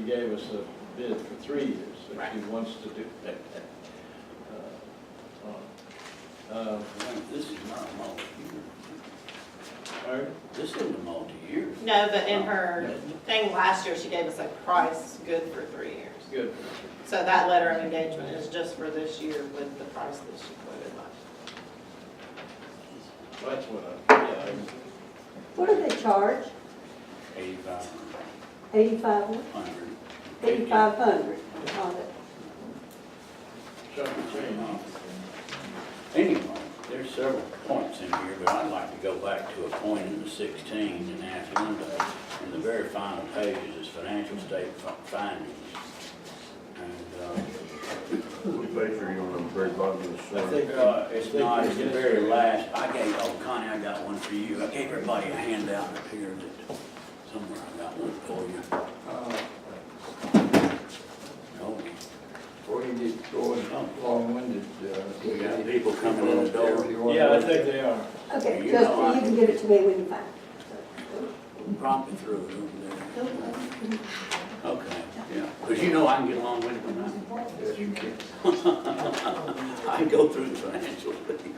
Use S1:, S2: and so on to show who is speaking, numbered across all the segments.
S1: She gave us a bid for three years, if she
S2: Right.
S1: wants to do that. Uh, uh,
S3: This is not a multi-year.
S1: Pardon?
S3: This isn't a multi-year.
S2: No, but in her thing last year, she gave us a price good for three years.
S1: Good.
S2: So that letter of engagement is just for this year with the price that she quoted
S1: That's
S2: last.
S1: what I, yeah, I-
S4: What do they charge?
S3: Eighty-five
S4: Eighty-five,
S3: hundred.
S4: eighty-five hundred on it.
S1: something changed.
S3: Anyway, there's several points in here, but I'd like to go back to a point in the sixteen and ask Linda, in the very final pages, is financial state fi- findings. And, uh,
S5: We pay for you on the very bottom of the
S1: I
S5: slide.
S1: think,
S3: uh, uh, it's
S1: I think
S3: not,
S1: we
S3: it's the
S1: just-
S3: very last, I gave, oh, Connie, I got one for you. I gave everybody a handout up here that, somewhere I got one for you.
S6: Uh,
S3: Oh,
S6: Before you get going long-winded, uh.
S3: We got people coming in the door.
S1: Yeah, I think they are.
S4: Okay,
S3: You
S4: just,
S3: know I-
S4: you can give it to me when you find
S3: promptly threw it over there. Okay, yeah, because you know I can get along with it when I.
S6: Yes, you can.
S3: I go through the financial thing.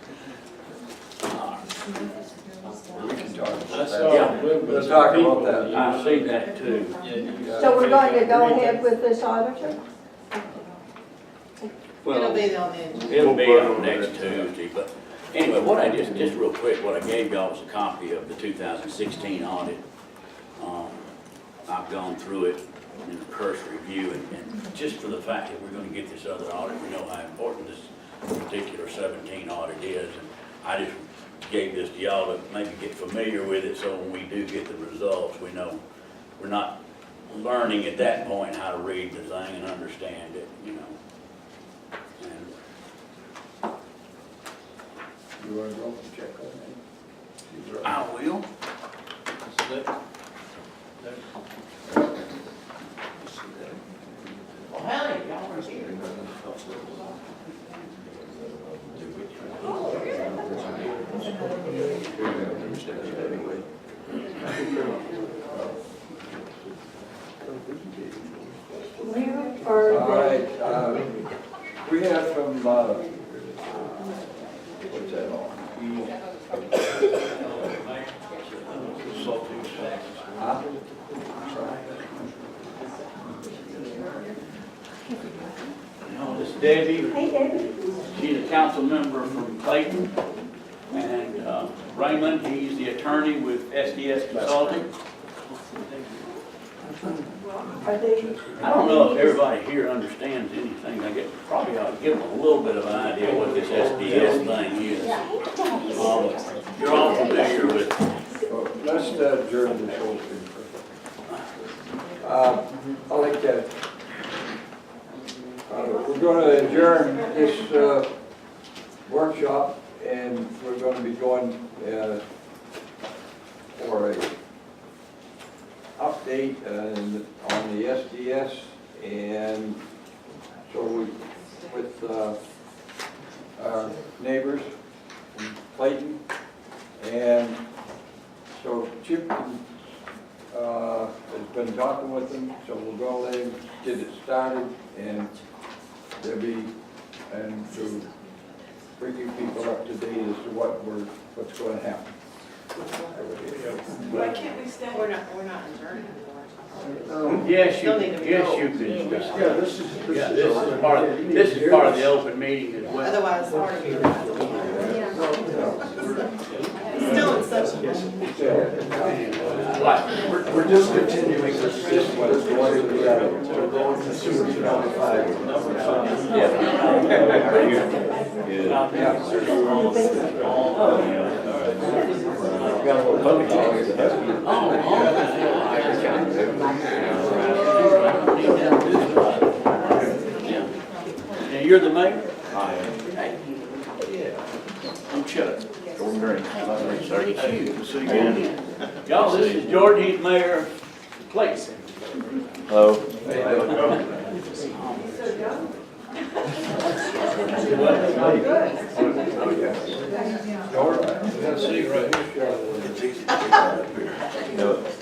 S6: We can talk about
S1: I
S6: that.
S1: saw a little bit
S6: We'll talk
S1: of people.
S6: about that.
S3: I see that too.
S4: it. So we're going to go ahead with this auditor?
S2: It'll
S3: Well,
S2: be on the agenda.
S3: it'll be on next Tuesday, but anyway, what I just, just real quick, what I gave y'all was a copy of the 2016 audit. Um, I've gone through it in the first review, and, and just for the fact that we're gonna get this other audit, we know how important this particular seventeen audit is. and I just gave this to y'all to maybe get familiar with it, so when we do get the results, we know, we're not learning at that point how to read the thing and understand it, you know. And
S6: You wanna go and check on that? She's right.
S3: I will, well, hell, y'all are here.
S4: Mayor
S6: All right,
S4: or
S6: uh, we have from, uh, uh, what's that on? Huh?
S3: No, this is Debbie,
S4: the, hey, David,
S3: she's a council member from Clayton, and uh, Raymond, he's the attorney with SDS Consulting.
S4: are they,
S3: I don't know if everybody here understands anything, I guess, probably ought to give them a little bit of an idea what this SDS thing is. Um, You're all familiar with,
S6: Well, Let's uh, adjourn this whole thing. for- Uh, I like that. Uh, We're going to adjourn this uh, workshop, and we're going to be going uh, for a update uh, on the SDS, and so we, with uh, our neighbors in Clayton, and so Chip uh, has been talking with them, so we'll go let him get it started, and there'll be, and to bring you people up to date as to what we're, what's going to happen.
S2: Why can't we stay? We're not, we're not adjourned anymore.
S3: yes, you,
S2: Still need to
S3: yes,
S2: go.
S3: you can
S5: Yeah,
S3: stop.
S5: this is,
S3: Yeah, this is part, of- this is part of the open meeting as well.
S2: Otherwise, it's hard to be around. It's Still in session.
S3: Right.
S5: We're discontinuing this, this one.
S6: This one is the other.
S5: We're going to sewer five. Number five.
S3: Now, you're the mayor? I am. I'm Chuck.
S5: Don't drink.
S3: It's you. Y'all, this is Jordan, he's mayor of Clayton.
S5: Hello.
S6: All right. Let's see, right.
S5: No.